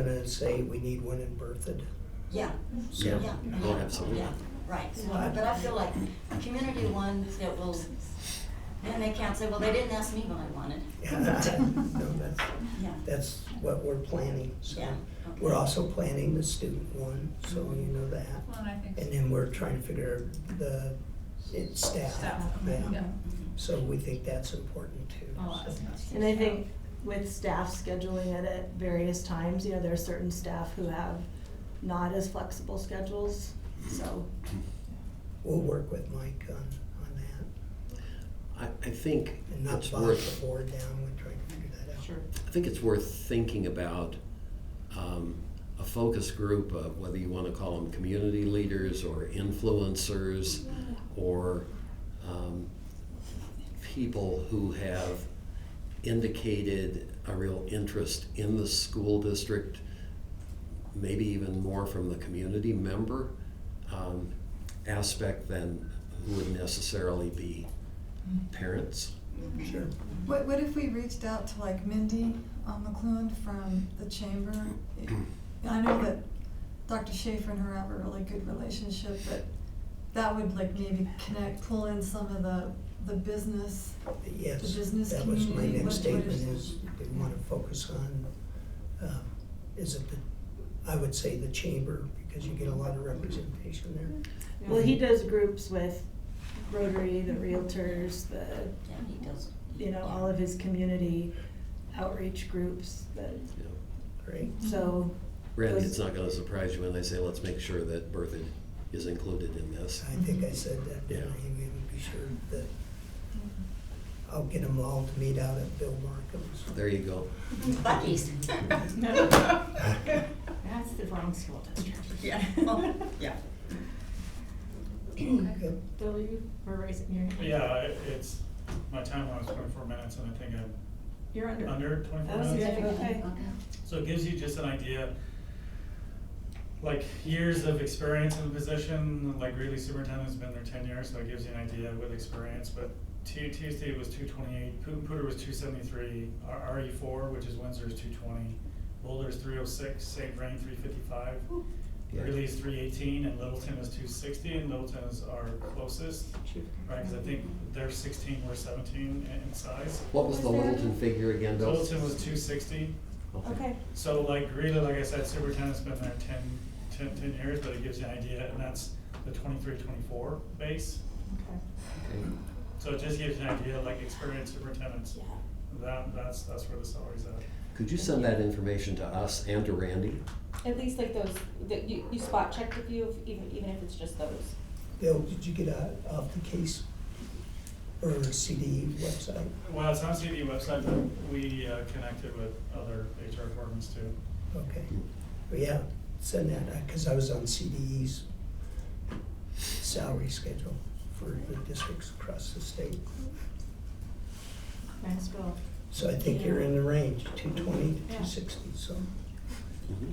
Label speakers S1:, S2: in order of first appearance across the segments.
S1: and say we need one in Berthoud.
S2: Yeah,
S1: So-
S3: Yeah,
S2: yeah.
S3: oh, absolutely.
S2: Yeah, right, So, but I feel like a community one that will, then they can't say, well, they didn't ask me what I wanted.
S1: No, that's,
S2: Yeah,
S1: that's what we're planning, so.
S2: yeah.
S1: We're also planning the student one, so you know that.
S4: Well, and I think.
S1: And then we're trying to figure out the, it's staff,
S4: Staff,
S1: yeah.
S2: Mm-hmm.
S1: Oh,
S4: yeah.
S1: So we think that's important too.
S4: I'll ask
S1: so.
S4: us.
S5: And I think with staff scheduling it at various times, you know, there are certain staff who have not as flexible schedules, so.
S1: We'll work with Mike on, on that
S3: I, I think
S1: and not
S3: it's
S1: box
S3: worth,
S1: the board down. We're trying to figure that out.
S3: I think it's worth thinking about um, a focus group of whether you want to call them community leaders or influencers or um, people who have indicated a real interest in the school district, maybe even more from the community member um, aspect than would necessarily be parents.
S1: Sure.
S6: What, what if we reached out to like Mindy um, McLuhan from the chamber? I know that Dr. Schaefer and her have a really good relationship, but that would like maybe connect, pull in some of the, the business.
S1: Yes,
S6: The business
S1: that was my next
S6: community, what- what
S1: statement
S6: is-
S1: is, we want to focus on, um, is it the, I would say the chamber, because you get a lot of representation there.
S5: Well, he does groups with Rotary, the Realtors, the,
S2: Yeah, he does.
S5: you know, all of his community outreach groups, the,
S3: You know.
S1: Great,
S5: so.
S3: Randy,
S5: Those-
S3: it's not gonna surprise you when I say, let's make sure that Berthoud is included in this.
S1: I think I said that, didn't I?
S3: Yeah.
S1: We would be sure that I'll get them all to meet out at Bill Markham's.
S3: There you go.
S2: Buc-ee's.
S7: That's the wrong school district.
S2: Yeah, Oh, yeah.
S1: Good.
S7: Bill, you were raising your hand.
S8: Yeah, it- it's, my timeline was twenty-four minutes, and I think I'm
S5: You're under.
S8: under
S5: That
S8: twenty-four
S5: was
S8: minutes.
S5: good, okay.
S8: So it gives you just an idea, like, years of experience in the position, like Greeley Superintendent's been there ten years, so it gives you an idea with experience, but T, TSD was two twenty-eight, Putin Putter was two seventy-three, R, RE four, which is Windsor's two twenty, Boulder's three oh six, St. Vrain three fifty-five,
S3: Yeah.
S8: Greeley is three eighteen, and Littleton is two sixty, and Littleton is our closest. Right, because I think they're sixteen, we're seventeen in in size.
S3: What was the Littleton figure again, Bill?
S8: Littleton was two sixty,
S5: Okay,
S8: so like Greta, like I said, superintendent's been there 10 10 10 years, but it gives you an idea, and that's the 23, 24 base.
S5: okay.
S3: Okay.
S8: So it just gives you an idea, like experienced superintendents, that, that's, that's where the salary's at.
S3: Could you send that information to us and to Randy?
S7: At least like those, that you, you spot checked a few, if- even, even if it's just those.
S1: Bill, did you get out off the case or CD website?
S8: Well, it's on CD website, but we uh, connected with other HR departments too.
S1: Okay,
S3: Mm-hmm.
S1: Well, yeah, send that, because I was on CDE's salary schedule for the districts across the state.
S5: Nice, Bill.
S1: So I think you're in the range, two twenty to two sixty, so,
S3: Mhm.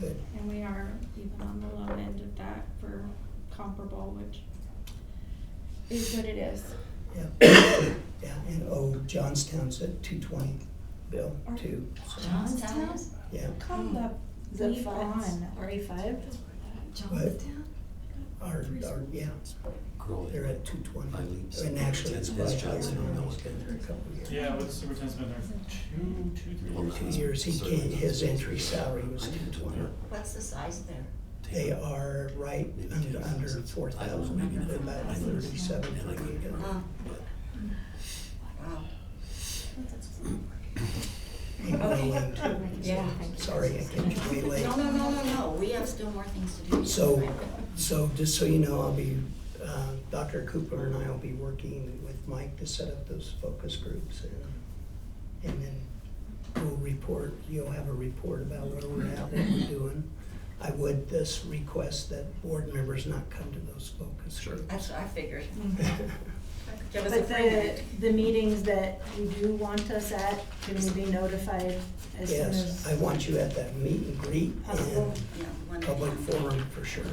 S1: good.
S7: And we are even on the low end of that for comparable, which is what it is.
S1: Yeah, yeah, and oh, Johnstown's at two twenty, Bill, too, so,
S2: Johnstown is-
S1: yeah,
S7: Come the
S5: Is that
S7: bleep
S5: five?
S7: Hmm. on.
S5: Are you five?
S6: Johnstown?
S1: our, our, yeah,
S3: Growing.
S1: they're at two twenty.
S3: By leaps.
S1: And actually, it's
S3: That's
S1: quite higher,
S3: Johnstown, no,
S1: now. he's
S3: okay.
S1: been there a couple of years.
S8: Yeah, but the superintendent's been there two, two, three
S3: Well,
S8: years.
S1: Two years, he came, his entry salary was
S3: I
S1: two
S3: didn't
S1: twenty.
S3: know.
S2: What's the size there?
S1: They are right
S3: Maybe
S1: under,
S3: 10,000.
S1: under four
S3: I don't know,
S1: thousand,
S3: maybe not.
S1: about
S3: I don't-
S1: thirty-seven,
S3: and I couldn't
S1: forty.
S3: remember,
S2: Oh.
S3: but-
S2: Wow.
S1: And going to-
S7: Yeah.
S1: Sorry, I came way late.
S2: No, no, no, no, no, we have still more things to do.
S1: So, so just so you know, I'll be, uh, Dr. Cooper and I will be working with Mike to set up those focus groups and, and then we'll report, you'll have a report about where we're at, what we're doing. I would this request that board members not come to those focus
S3: Sure.
S1: groups.
S2: That's what I figured. I was
S5: Mm. But
S2: afraid of
S5: the,
S2: it.
S5: the meetings that you do want us at, can we be notified as soon
S1: Yes,
S5: as?
S1: I want you at that meet and greet
S5: Possible.
S1: and
S2: Yeah, one.
S1: public forum for sure.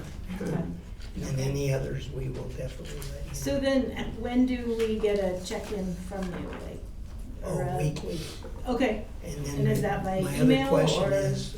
S1: And any others, we will definitely let you know.
S5: So then, uh, when do we get a check-in from you, like? or
S1: Oh,
S5: a-
S1: weekly.
S5: Okay,
S1: And then
S5: uh, And is that by
S1: my
S5: email
S1: other question
S5: or-
S1: is,